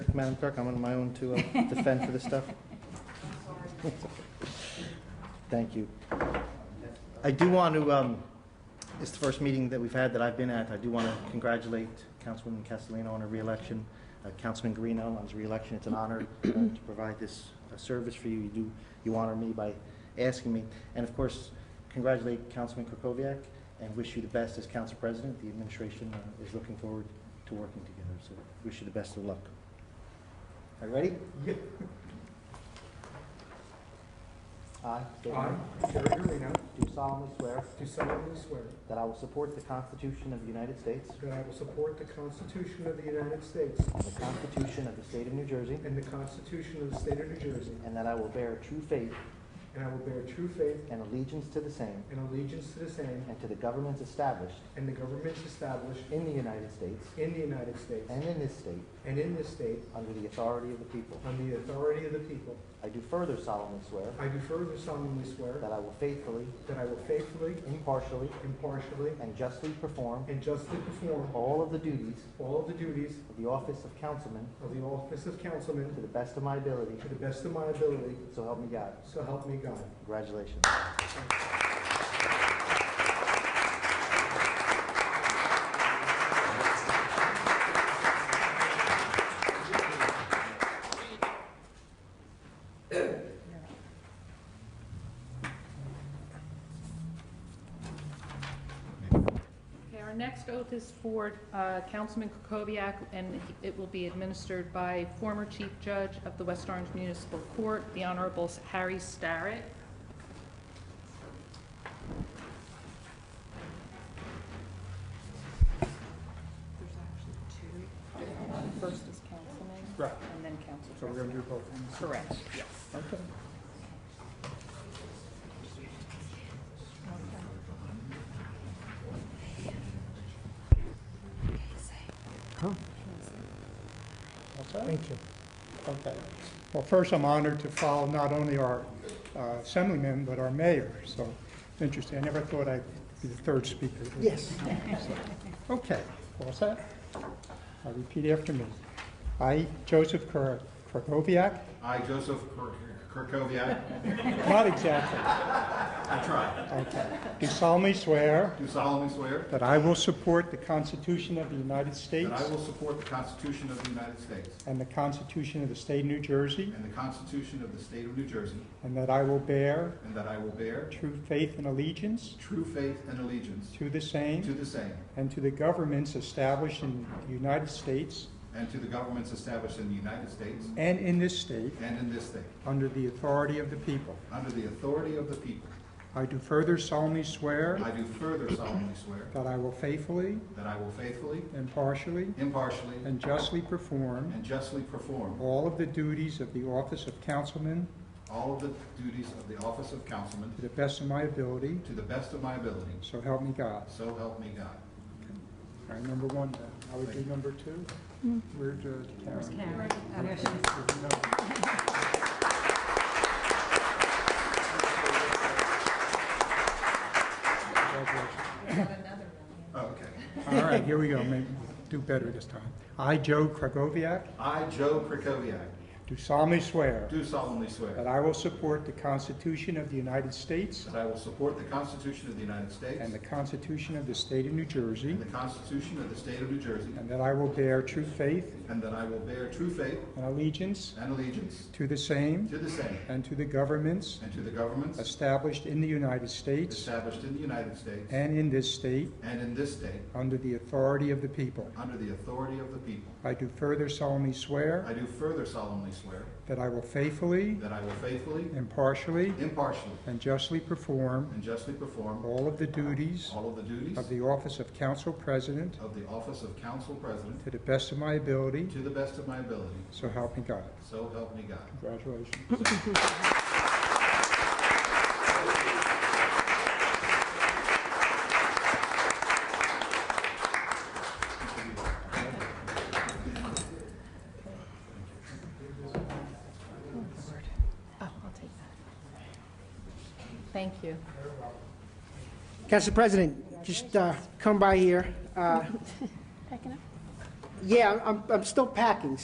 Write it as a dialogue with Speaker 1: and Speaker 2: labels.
Speaker 1: Madam Clerk, I'm on my own to uh, defend for this stuff. Thank you. I do want to, um, it's the first meeting that we've had that I've been at. I do want to congratulate Councilwoman Castellino on her reelection, uh, Councilman Guarino on his reelection. It's an honor uh, to provide this uh, service for you. You do, you honor me by asking me. And of course, congratulate Councilman Krokoviac and wish you the best as council president. The administration uh, is looking forward to working together, so wish you the best of luck. Are you ready? I state your
Speaker 2: I,
Speaker 1: name.
Speaker 2: Jerry Arena,
Speaker 1: Do solemnly swear
Speaker 2: do solemnly swear
Speaker 1: that I will support the Constitution of the United States
Speaker 2: that I will support the Constitution of the United States
Speaker 1: and the Constitution of the State of New Jersey,
Speaker 2: and the Constitution of the State of New Jersey,
Speaker 1: and that I will bear true faith
Speaker 2: and I will bear true faith
Speaker 1: and allegiance to the same
Speaker 2: and allegiance to the same
Speaker 1: and to the governments established
Speaker 2: and the governments established
Speaker 1: in the United States
Speaker 2: in the United States
Speaker 1: and in this state
Speaker 2: and in this state
Speaker 1: under the authority of the people.
Speaker 2: on the authority of the people.
Speaker 1: I do further solemnly swear
Speaker 2: I do further solemnly swear
Speaker 1: that I will faithfully,
Speaker 2: that I will faithfully,
Speaker 1: impartially,
Speaker 2: impartially,
Speaker 1: and justly perform
Speaker 2: and justly perform
Speaker 1: all of the duties
Speaker 2: all of the duties
Speaker 1: of the office of councilman
Speaker 2: of the office of
Speaker 1: to
Speaker 2: councilman
Speaker 1: the best of my ability,
Speaker 2: to the best of my ability,
Speaker 1: so help me God.
Speaker 2: so help me God.
Speaker 1: Congratulations.
Speaker 3: Okay, our next oath is for uh, Councilman Kukoviac, and it will be administered by former Chief Judge of the West Orange Municipal Court, the Honorable Harry Starrett. There's actually two. First is Councilman.
Speaker 2: Right.
Speaker 3: And then Council
Speaker 2: So we're going to do both.
Speaker 3: President. Correct, yes.
Speaker 2: Okay.
Speaker 4: Thank you. Okay. Well, first, I'm honored to follow not only our uh, assemblyman, but our mayor, so it's interesting. I never thought I'd be the third speaker. Yes. Okay, all set? Uh, Repeat after me. I, Joseph Kra- Krakowiak,
Speaker 5: I, Joseph Kir- Kirkoviac,
Speaker 4: not exactly,
Speaker 5: I try,
Speaker 4: okay, do solemnly swear
Speaker 5: do solemnly swear
Speaker 4: that I will support the Constitution of the United
Speaker 5: that
Speaker 4: States
Speaker 5: I will support the Constitution of the United States
Speaker 4: and the Constitution of the State of New Jersey,
Speaker 5: and the Constitution of the State of New Jersey,
Speaker 4: and that I will bear
Speaker 5: and that I will bear
Speaker 4: true faith and allegiance
Speaker 5: true faith and allegiance
Speaker 4: To the
Speaker 5: to
Speaker 4: same
Speaker 5: the same
Speaker 4: and to the governments established in the United States
Speaker 5: and to the governments established in the United States
Speaker 4: and in this state
Speaker 5: and in this state,
Speaker 4: under the authority of the people.
Speaker 5: under the authority of the people.
Speaker 4: I do further solemnly swear
Speaker 5: I do further solemnly swear
Speaker 4: that I will faithfully,
Speaker 5: that I will faithfully,
Speaker 4: impartially,
Speaker 5: impartially,
Speaker 4: and justly perform
Speaker 5: and justly perform
Speaker 4: all of the duties of the office of councilman
Speaker 5: all of the duties of the office of councilman
Speaker 4: to the best of my ability,
Speaker 5: to the best of my ability,
Speaker 4: so help me God.
Speaker 5: so help me God.
Speaker 4: All right, number one, then. I would do number two. Where's uh, Karen? Congratulations.
Speaker 5: Oh, okay.
Speaker 4: All right, here we go, maybe we'll do better this time. I, Joe Kragoviac,
Speaker 5: I, Joe Krakowiak,
Speaker 4: do solemnly swear
Speaker 5: do solemnly
Speaker 4: that
Speaker 5: swear
Speaker 4: I will support the Constitution of the United States
Speaker 5: that I will support the Constitution of the United States
Speaker 4: and the Constitution of the State of New Jersey,
Speaker 5: and the Constitution of the State of New Jersey,
Speaker 4: and that I will bear true faith
Speaker 5: and that I will bear true faith
Speaker 4: and allegiance
Speaker 5: and allegiance
Speaker 4: to the same
Speaker 5: to the same
Speaker 4: and to the governments
Speaker 5: and to the governments
Speaker 4: established in the United States
Speaker 5: established in the United States
Speaker 4: and in this state
Speaker 5: and in this state,
Speaker 4: under the authority of the people.
Speaker 5: under the authority of the people.
Speaker 4: I do further solemnly swear
Speaker 5: I do further solemnly swear
Speaker 4: that I will faithfully,
Speaker 5: that I will faithfully,
Speaker 4: impartially,
Speaker 5: impartially,
Speaker 4: and justly perform
Speaker 5: and justly perform
Speaker 4: all of the duties
Speaker 5: all of the duties
Speaker 4: Of the office of council president
Speaker 5: of the office of council president
Speaker 4: to the best of my ability,
Speaker 5: to the best of my ability,
Speaker 4: so help me God.
Speaker 5: so help me God.
Speaker 4: Congratulations.
Speaker 3: Oh, I'll take that. Thank you.
Speaker 6: Council President, just uh, come by here. Packing up? Yeah, uh. I'm- I'm I'm still packing,